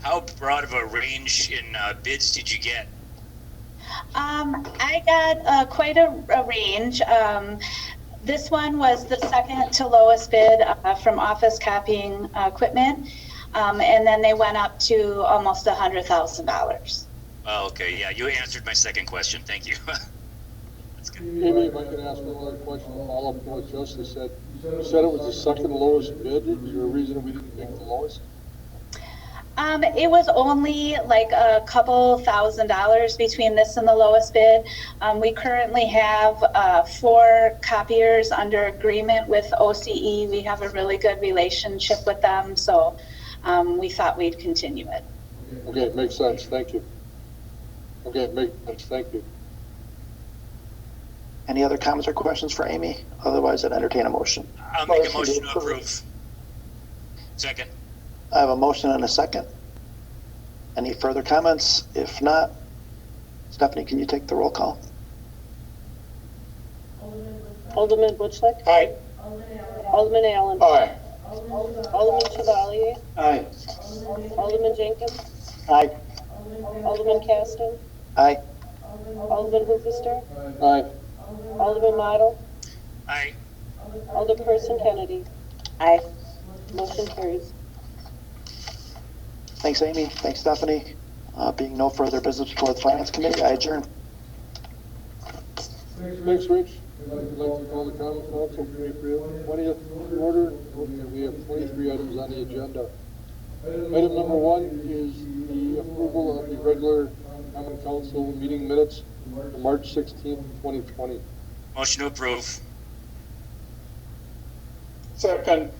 how broad of a range in uh, bids did you get? Um, I got uh, quite a, a range. Um, this one was the second to lowest bid uh, from office copying uh, equipment, um, and then they went up to almost a hundred thousand dollars. Oh, okay, yeah, you answered my second question, thank you. That's good. Maybe if I could ask one other question, all of what Justin said, you said it was the second lowest bid, is there a reason we didn't pick the lowest? Um, it was only like a couple thousand dollars between this and the lowest bid. Um, we currently have uh, four copiers under agreement with OCE. We have a really good relationship with them, so um, we thought we'd continue it. Okay, it makes sense, thank you. Okay, it makes sense, thank you. Any other comments or questions for Amy? Otherwise, I'd entertain a motion. I'll make a Motion motion to to approve. Second, I have a motion and a second. Any further comments? If not, Stephanie, can you take the roll call? Alderman Butchlick? Aye. Alderman Allen? Aye. Oh. Alderman Chevalier? Aye. Alderman Jenkins? Aye. Alderman Caston? Aye. Alderman Hoopister? Aye. Alderman Model? aye, Alderperson Kennedy? Aye. Motion carries. Thanks, Amy. Thanks, Stephanie. Uh, being no further business before the Finance Committee, I adjourn. Thanks, Rich. I'd like to call the common council meeting for the twentieth order. We have twenty-three items on the agenda. Item number one is the approval of the regular common council meeting minutes for March sixteenth, twenty twenty. motion to approve. Second,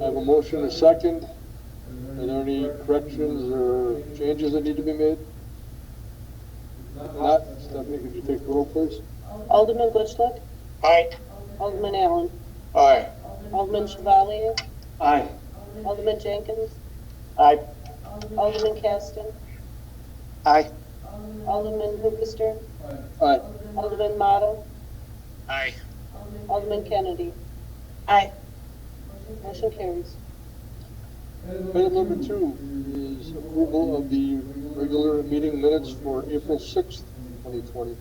I have a motion and a second. Are there any corrections or changes that need to be made? If not, Stephanie, could you take the roll, please? Alderman Butchlick? aye. Alderman Allen? Aye. Alderman Chevalier? Aye. Alderman Jenkins? Aye. Alderman Caston? Aye. Alderman Hoopister? Aye. Alderman Model? Aye, Alderman Kennedy? Aye. Motion carries. Item number two is approval of the regular meeting minutes for April sixth, twenty twenty.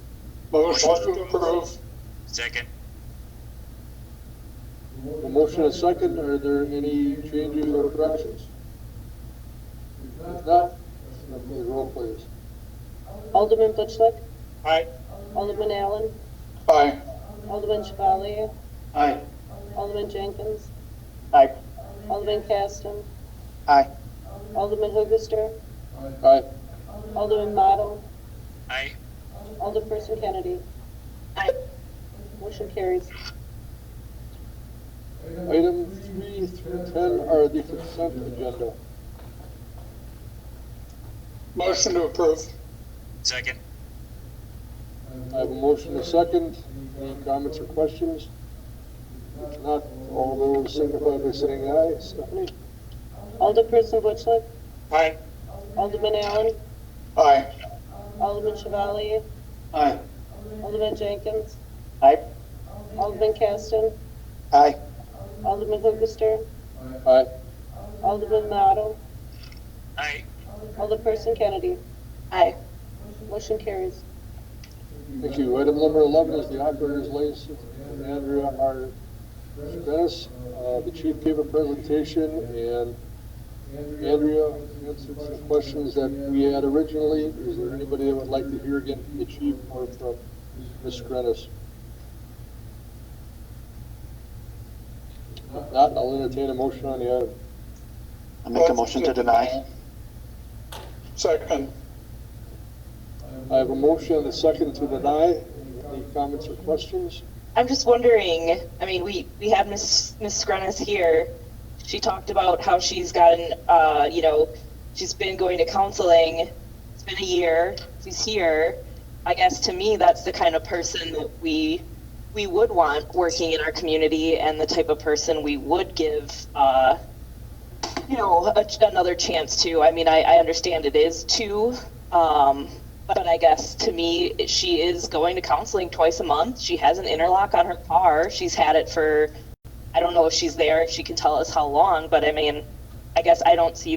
Motion to approve. second, A motion and a second. Are there any changes or corrections? If not, Stephanie, roll, please. Alderman Butchlick? Aye. Alderman Allen? Aye. Alderman Chevalier? Aye. Alderman Jenkins? Aye. Alderman Caston? Aye. Alderman Hoogaster? Aye. Alderman Model? aye, Alderperson Kennedy? Aye. Motion carries. Item three through ten are the consent agenda. Motion to approve. second, I have a motion and a second. Any comments or questions? If not, all those signify by saying aye. Stephanie? Alderperson Butchlick? Aye. Alderman Allen? Aye. Alderman Chevalier? Aye. Alderman Jenkins? Aye. Alderman Caston? Aye. Alderman Hoogaster? Aye. Alderman Model? aye, Alderperson Kennedy? Aye. Motion carries. Thank you. Item number 11 is the operator's license. from Andrea R. Dennis, Uh, the chief gave a presentation, and Andrea answered some questions that we had originally. Is there anybody that would like to hear again from the chief or from Ms. Dennis? If not, I'll entertain a motion on the item. I make a motion to deny. Second. I have a motion and a second to deny. Any comments or questions? I'm just wondering, I mean, we, we had Miss Miss Skrenis here. She talked about how she's gotten, uh, you know, she's been going to counseling. It's been a year. She's here. I guess to me, that's the kind of person that we we would want working in our community, and the type of person we would give, uh, you know, a, another chance to. I mean, I, I understand it is two. Um, but I guess to me, she is going to counseling twice a month. She has an interlock on her car. She's had it for, I don't know if she's there, if she can tell us how long, but I mean, I guess I don't see